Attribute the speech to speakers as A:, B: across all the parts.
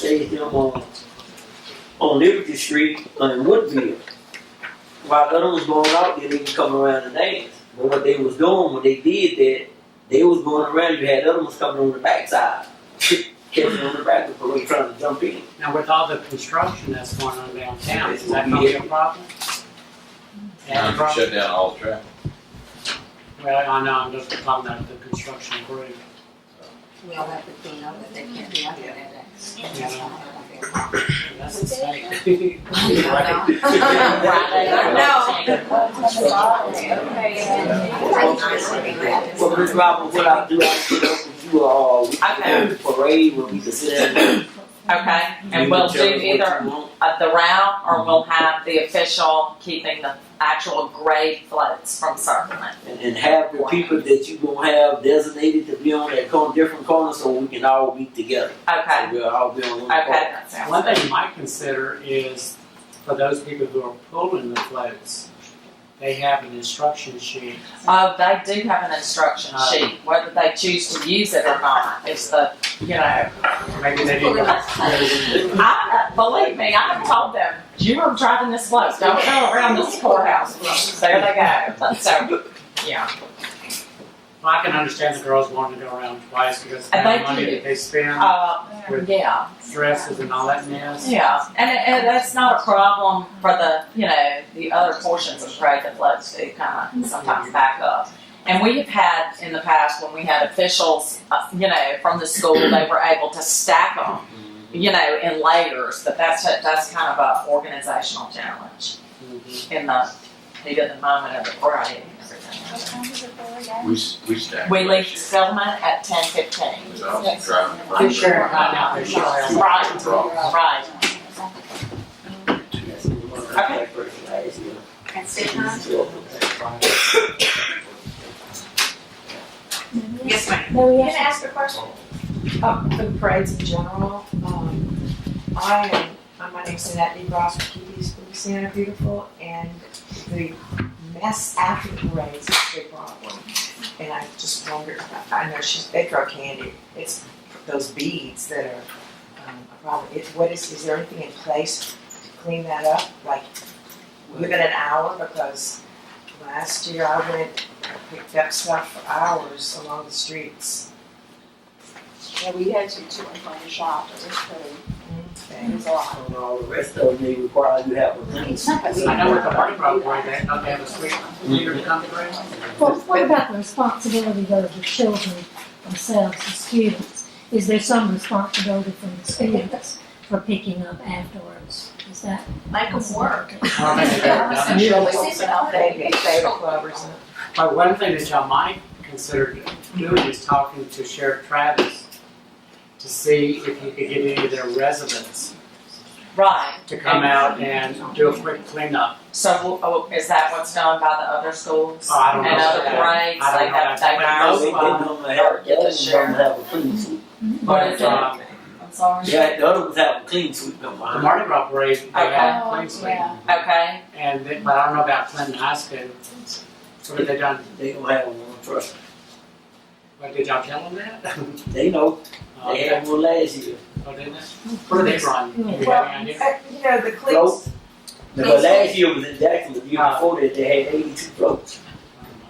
A: say him on, on Liberty Street in Woodville. While others was going out there, they would come around and dance. But what they was doing when they did that, they was going around, you had other ones coming on the backside. Catching on the back of the parade trying to jump in.
B: Now, with all the construction that's going on downtown, is that gonna be a problem? Yeah, the
C: Now you can
B: problem-
C: shut down all traffic.
B: Well, I know, I'm just talking about the construction group.
D: We'll have to clean up, but they can't be out there that day. That's
B: Yeah.
D: not gonna be a problem.
B: That's the state.
A: Well, Miss Robert, what I do, I sit up with you all, we can do the parade where we can sit down and
E: Okay, and we'll do either uh, the round, or we'll have the official keeping the actual grade floats from circling.
A: and, and have the people that you gonna have designated to be on that corner, different corner, so we can all meet together.
E: Okay,
A: So we'll all be on one
E: okay,
A: corner.
E: that sounds
B: One thing you might consider is for those people who are pulling the floats, they have an instruction sheet.
E: Oh, they do have an instruction
B: Uh,
E: sheet, whether they choose to use it or not, is the, you know.
B: Maybe they need to.
E: I, believe me, I have told them, you are driving this float, don't go around this courthouse float, there they go, so, yeah.
B: Well, I can understand the girls wanting to go around twice because of
E: And
B: the
E: they
B: money
E: do.
B: that they spend,
E: Uh, yeah,
B: dresses and all that mess.
E: yeah, and, and that's not a problem for the, you know, the other portions of parade that floats do kind of sometimes back up. And we have had in the past, when we had officials, uh, you know, from the school, they were able to stack them you know, in layers, but that's a, that's kind of a organizational challenge in the heat of the moment of the parade and everything.
C: We, s- we stacked.
E: We leave
C: last year.
E: settlement at ten fifteen.
C: Because I was driving. the
B: I'm sure,
C: bus.
B: I know, they're sure.
E: Right. Right. Okay.
D: And sit down. Yes, ma'am.
F: No, we
D: Can I
F: have
D: ask a question?
F: uh, for the parades in general. Um, I am, I'm my name's Annette D. Ross from Kiki's Louisiana Beautiful, and the mess after the parades is a big problem. And I just wonder, I know she's, they throw candy, it's those beads that are um, a problem. It, what is, is there anything in place to clean that up, like within an hour? Because last year I went, I picked up stuff for hours along the streets.
D: Yeah, we had to, two in front of the shop, it was pretty,
F: Mm-hmm.
D: it was a lot.
A: And all the rest of them, they require you have a link.
B: I know with the party program, they, don't they have a sweet leader to come to bring?
F: Well,
G: Well, what about the responsibility though of the children themselves, the students? Is there some responsibility from the students for picking up afterwards? Is that?
D: Make 'em work.
B: I don't think they've ever done it.
F: Favorite, favorite club or something.
B: But one thing that y'all might consider doing is talking to Sheriff Travis to see if you could get any of their residents
E: Right.
B: to come out and do a quick cleanup.
E: So w- oh, is that what's done by the other schools?
B: Oh, I don't know.
E: And other
B: I don't
E: parades,
B: know
E: they
B: that.
E: have, they hire
A: They
E: someone.
A: don't have, the others don't have a clean sweep.
E: What is it?
B: Um,
E: I'm sorry.
A: Yeah, the other ones have a clean sweep, no
B: The
A: mind.
B: Mardi Gras parade, they had clean sweep.
E: Okay,
B: And, they- but I don't know about Clinton High School. So what they done,
A: They don't have one, trust me.
B: what did y'all tell them that?
A: They know,
B: Oh,
A: they
B: okay.
A: had one last year.
B: Oh, didn't they? Where did they run? You have any
F: Well,
B: idea?
F: uh, you know, the
A: Float.
F: clips,
A: But last year was in Jackson, the
B: Uh,
A: year before that, they had eighty-two floats.
B: Oh,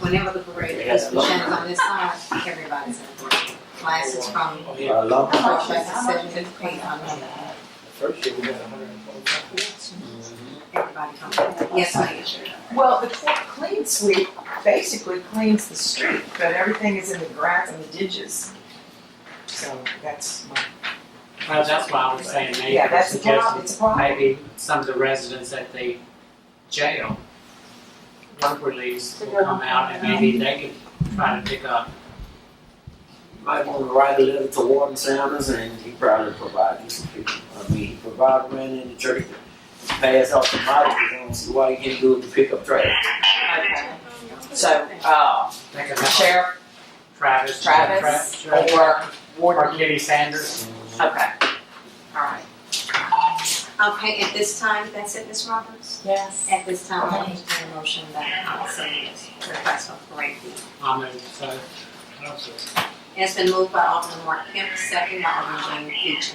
D: Whenever the parade is, which ends on this side, everybody's in the parade. Classes from
B: Oh, yeah.
A: A lot of-
D: first grade to seventh and eighth on the other.
A: First year, we got hundred and forty-five.
D: Everybody comes. Yes, ma'am.
F: well, the cl- clean sweep basically cleans the street, but everything is in the grass and the ditches. So that's my,
B: Well, that's why I was saying maybe
F: yeah, that's a
B: suggesting
F: problem, it's a problem.
B: maybe some of the residents at the jail, work release, will come out and maybe they could try to pick up.
A: Might want to write a letter to Warden Sanders and he probably provide you some people. I mean, he provided rent in the church, to pass out the mileage, I don't see why he can't do it to pick up trash.
E: okay. So, uh,
B: They could help
E: Sheriff
B: Travis.
E: Travis
B: Tra- Tra-
E: or
B: Or
E: Warden,
B: Kitty Sanders.
E: okay. All right.
D: Okay, at this time, that's it, Ms. Roberts?
E: Yes.
D: At this time, I'll entertain a motion that I'll send this request for parade.
B: I mean, so.
D: It's been moved by Alderman Mark Kemp, second by Alderman Jane Peach.